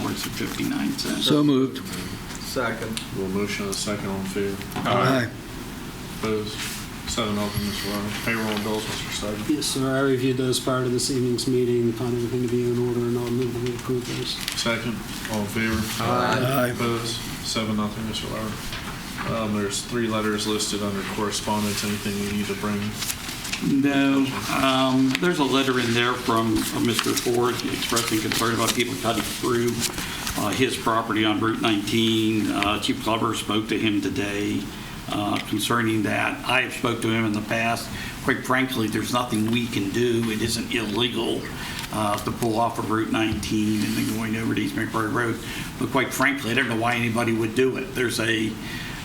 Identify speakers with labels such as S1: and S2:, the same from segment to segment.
S1: $1,474.59.
S2: So moved.
S3: Second.
S4: We'll motion and a second on favor.
S2: Aye.
S4: Opposed? Seven open, Mr. Lowry. Payroll and bills, Mr. Studd.
S5: Yes, sir, I reviewed those prior to this evening's meeting, found everything to be in order, and I'll move that we approve those.
S4: Second, all in favor.
S2: Aye.
S4: Opposed? Seven nothing, Mr. Lowry. Um, There's three letters listed under correspondence. Anything we need to bring?
S1: No, um, there's a letter in there from uh, Mr. Ford expressing concern about people cutting through uh, his property on Route 19. Uh, Chief Glover spoke to him today uh, concerning that. I have spoke to him in the past. Quite frankly, there's nothing we can do. It isn't illegal uh, to pull off of Route 19 and then going over to East McMurray Road. But quite frankly, I don't know why anybody would do it. There's a,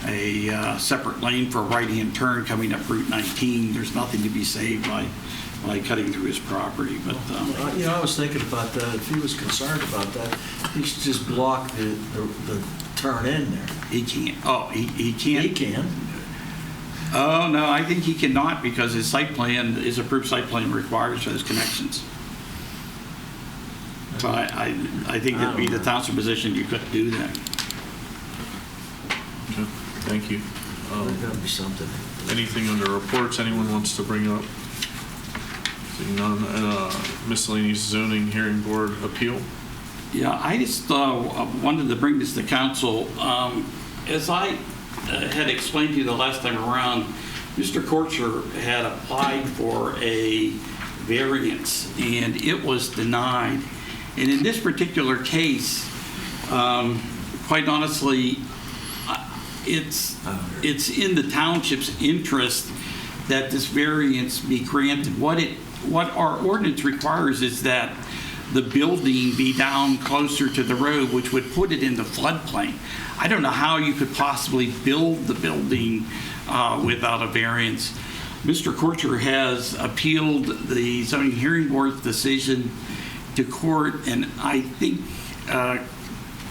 S1: a uh, separate lane for a right-hand turn coming up Route 19. There's nothing to be saved by, by cutting through his property, but, um,
S3: Uh, You know, I was thinking about that, if he was concerned about that, he should just block the, the- the turn in there.
S1: he can't, oh, he, he
S3: He
S1: can't?
S3: can.
S1: Oh, no, I think he cannot because his site plan, his approved site plan requires those connections. So I, I, I think it'd be the township position, you couldn't do that.
S4: Okay, Thank you.
S3: Oh, There's
S4: Um,
S3: got to be something.
S4: Anything under reports anyone wants to bring up? Seeing none, uh, miscellaneous zoning hearing board appeal?
S1: Yeah, I just uh, wanted to bring this to council. Um, As I uh, had explained to you the last time around, Mr. Kortzer had applied for a variance, and it was denied. And in this particular case, um, quite honestly, it's, it's in the township's interest that this variance be granted. What it, what our ordinance requires is that the building be down closer to the road, which would put it in the floodplain. I don't know how you could possibly build the building uh, without a variance. Mr. Korcher has appealed the zoning hearing board's decision to court, and I think uh,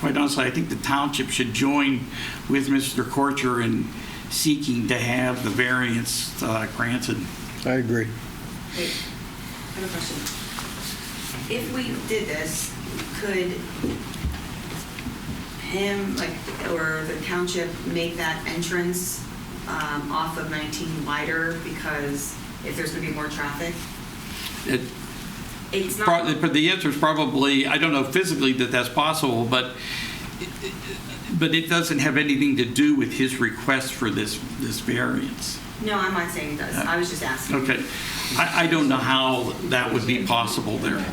S1: quite honestly, I think the township should join with Mr. Korcher in seeking to have the variance uh, granted.
S2: I agree.
S6: Wait, I have a question. If we did this, could him, like, or the township make that entrance um, off of 19 wider because if there's going to be more traffic?
S1: It-
S6: It's not.
S1: prob- But the answer is probably, I don't know physically that that's possible, but, but it doesn't have anything to do with his request for this, this variance.
S6: No, I'm not saying it does. I was just asking.
S1: Okay. I, I don't know how that would be possible there.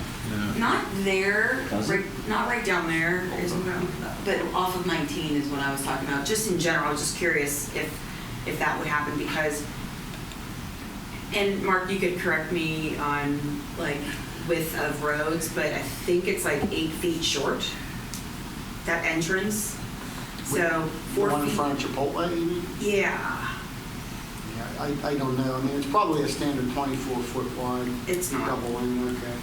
S6: Not there,
S3: Does it?
S6: right, not right down there, is what I'm- but off of 19 is what I was talking about. Just in general, I was just curious if, if that would happen because, and Mark, you could correct me on like width of roads, but I think it's like eight feet short, that entrance. So four
S7: One in
S6: feet.
S7: front of Chipotle, you mean?
S6: Yeah,
S7: Yeah, I, I don't know. I mean, it's probably a standard 24-foot wide.
S6: It's not.
S7: Double lane, okay.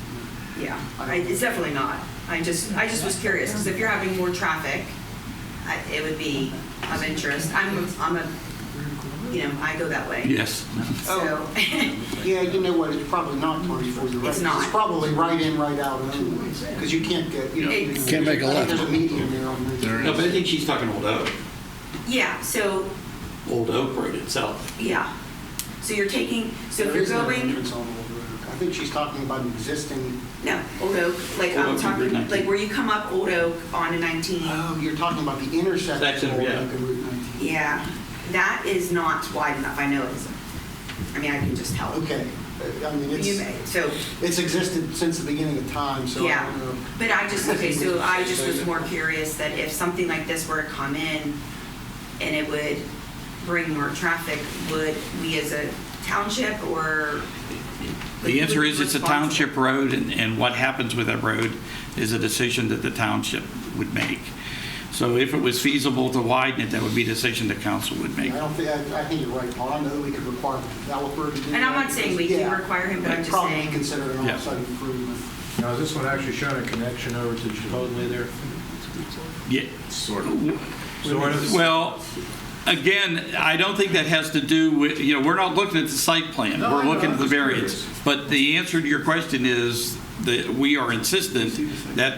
S6: yeah. I- It's definitely not. I just, I just was curious because if you're having more traffic, I- it would be of interest. I'm, a- I'm a you know, I go that way.
S1: Yes.
S6: So,
S7: Oh. Yeah, you know what, it's probably not 24, you're right.
S6: Mm-hmm. It's not. Mm-hmm.
S7: It's probably right in, right out two ways, because you can't get, you know. you
S6: It's-
S2: Can't make a left.
S7: There's a median there on this.
S4: There is.
S1: No, but I think she's talking Old Oak,
S6: yeah, so,
S1: Old Oak Road itself.
S6: yeah. So you're taking, so if
S7: There
S6: you're
S7: is no
S6: going,
S7: entrance on Old Road. I think she's talking about an existing,
S6: no, Old Oak, like
S1: Old Oak
S6: I'm
S1: and
S6: talking,
S1: Route 19.
S6: like where you come up Old Oak onto 19.
S7: oh, you're talking about the intersection
S1: Section,
S7: of Old
S1: yeah.
S7: Oak and Route 19.
S6: Yeah, that is not wide enough. I know it isn't. I mean, I can just tell.
S7: Okay, Uh, I mean,
S6: You
S7: it's,
S6: may, so,
S7: it's existed since the beginning of time, so I
S6: yeah.
S7: don't know.
S6: But I just, okay, so I just was more curious that if something like this were to come in and it would bring more traffic, would we as a township or?
S1: The answer is it's a
S6: Responsible.
S1: township road, and, and what happens with that road is a decision that the township would make. So if it was feasible to widen it, that would be a decision the council would
S7: I
S1: make.
S7: don't think, I I think you're right, Paul. I know that we could require the developer to do that.
S6: And I'm not saying we can
S7: Yeah.
S6: require him, but I'm just
S7: Probably
S6: saying-
S7: consider it an
S1: Yeah.
S7: outside improvement.
S3: Now, is this one actually showing a connection over to Chipotle there?
S1: Yeah.
S4: Sort of.
S3: Sort of.
S1: Well, again, I don't think that has to do with, you know, we're not looking at the site plan.
S3: No, I
S1: We're
S3: know,
S1: looking
S3: I'm
S1: at the
S3: just curious.
S1: variance. But the answer to your question is that we are insistent that